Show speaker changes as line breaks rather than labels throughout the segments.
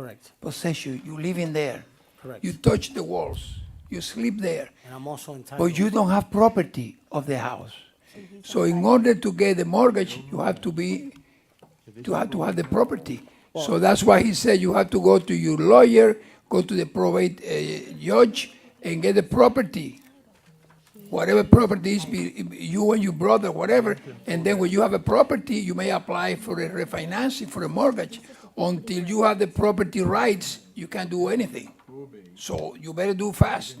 Correct,
possess you. You live in there.
correct.
You touch the walls. You sleep there.
And I'm also entitled.
But you don't have property of the house. So in order to get the mortgage, you have to be, to have to have the property. So that's why he said you have to go to your lawyer, go to the probate uh, judge, and get the property. Whatever property is, be- you and your brother, whatever, and then when you have a property, you may apply for a refinancing, for a mortgage. Until you have the property rights, you can't do anything. So you better do fast.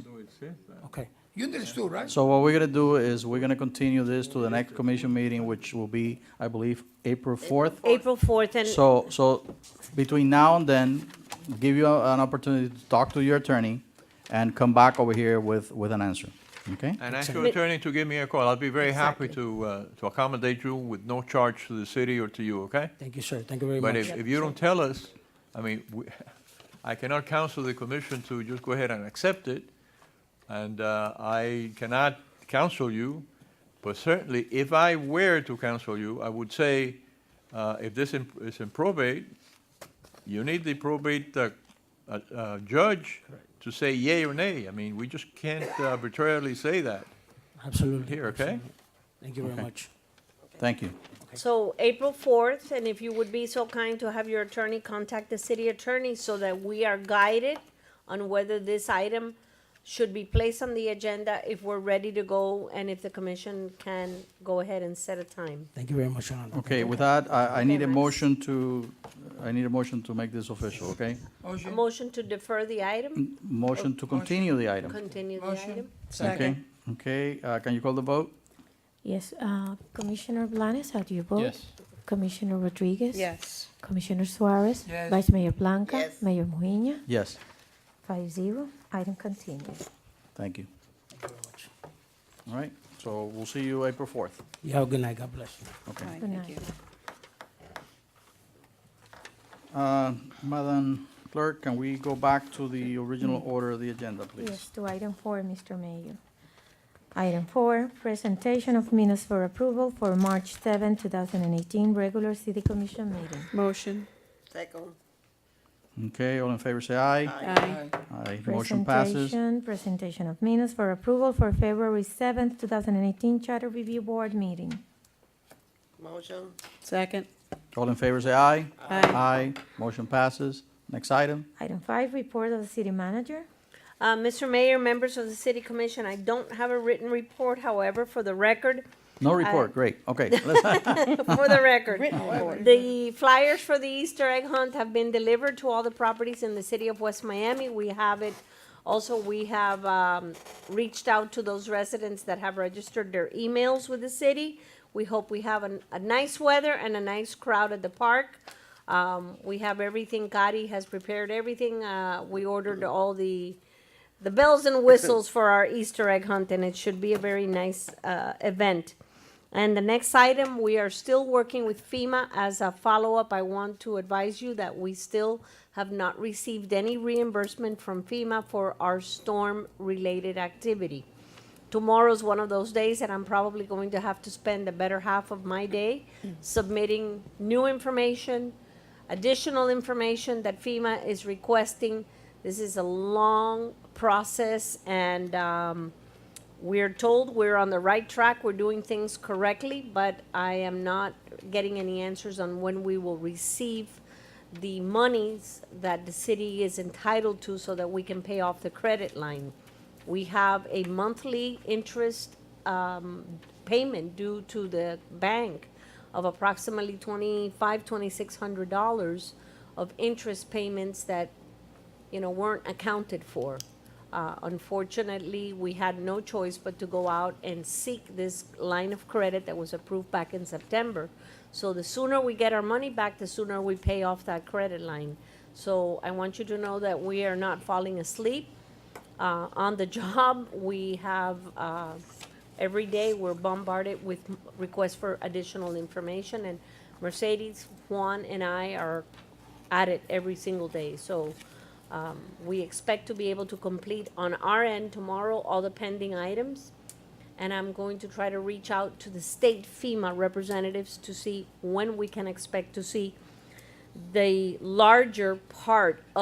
Okay,
You understood, right?
So what we're gonna do is, we're gonna continue this to the next commission meeting, which will be, I believe, April fourth.
April 4th, and
So, so between now and then, give you a- an opportunity to talk to your attorney and come back over here with, with an answer, okay?
And ask your attorney to give me a call. I'll be very happy to, uh, to accommodate you with no charge to the city or to you, okay?
thank you, sir. Thank you very
But
much.
if, if you don't tell us, I mean, we- I cannot counsel the commission to just go ahead and accept it. And uh, I cannot counsel you, but certainly if I were to counsel you, I would say, uh, if this in- is in probate, you need the probate uh, uh, uh, judge to say yea or nay. I mean, we just can't arbitrarily say that
Absolutely.
here, okay?
Thank you very much.
Thank you.
so April 4th, and if you would be so kind to have your attorney contact the city attorney so that we are guided on whether this item should be placed on the agenda, if we're ready to go, and if the commission can go ahead and set a time.
Thank you very much, Your Honor.
Okay, with that, I, I need a
Max.
motion to, I need a motion to make this official, okay?
A motion to defer the item,
Motion to continue the item,
continue the
Motion.
item?
okay? Okay, uh, can you call the vote?
Yes, uh, Commissioner Blanes, how do you vote? Commissioner Rodriguez?
Yes.
Commissioner Suarez?
Yes.
Vice Mayor Blanca? Mayor Mujina?
Yes,
Five zero, item continues.
thank you. All right, so we'll see you April fourth.
You have a good night. God bless you.
Okay.
All right,
Good
thank
night.
you.
Uh, Madam Clerk, can we go back to the original order of the agenda,
Mm. Yes,
please?
to item four, Mr. Mayor. Item four, presentation of minutes for approval for March 7, 2018, regular city commission meeting.
Motion.
Second.
Okay, all in favor, say aye.
Aye.
Aye, motion passes.
Presentation- Presentation of minutes for approval for February 7, 2018, charter review board meeting.
Motion.
Second.
All in favor, say aye.
Aye.
Aye, motion passes. Next item,
Item five, report of the city manager.
Uh, Mr. Mayor, members of the city commission, I don't have a written report, however, for the record,
no report, great, okay. let's-
for the record.
Written report.
The flyers for the Easter egg hunt have been delivered to all the properties in the city of West Miami. We have it, also, we have, um, reached out to those residents that have registered their emails with the city. We hope we have an, a nice weather and a nice crowd at the park. Um, we have everything, Gotti has prepared everything, uh, we ordered all the, the bells and whistles for our Easter egg hunt, and it should be a very nice, uh, event. And the next item, we are still working with FEMA. As a follow-up, I want to advise you that we still have not received any reimbursement from FEMA for our storm-related activity. Tomorrow's one of those days that I'm probably going to have to spend the better half of my day submitting new information, additional information that FEMA is requesting. This is a long process and, um, we're told we're on the right track, we're doing things correctly, but I am not getting any answers on when we will receive the monies that the city is entitled to so that we can pay off the credit line. We have a monthly interest um, payment due to the bank of approximately twenty-five, twenty-six hundred dollars of interest payments that you know, weren't accounted for. Uh, unfortunately, we had no choice but to go out and seek this line of credit that was approved back in September. So the sooner we get our money back, the sooner we pay off that credit line. So I want you to know that we are not falling asleep uh, on the job. We have, uh, every day, we're bombarded with m- requests for additional information, and Mercedes, Juan, and I are at it every single day. So um, we expect to be able to complete on our end tomorrow all the pending items. And I'm going to try to reach out to the state FEMA representatives to see when we can expect to see the larger part of.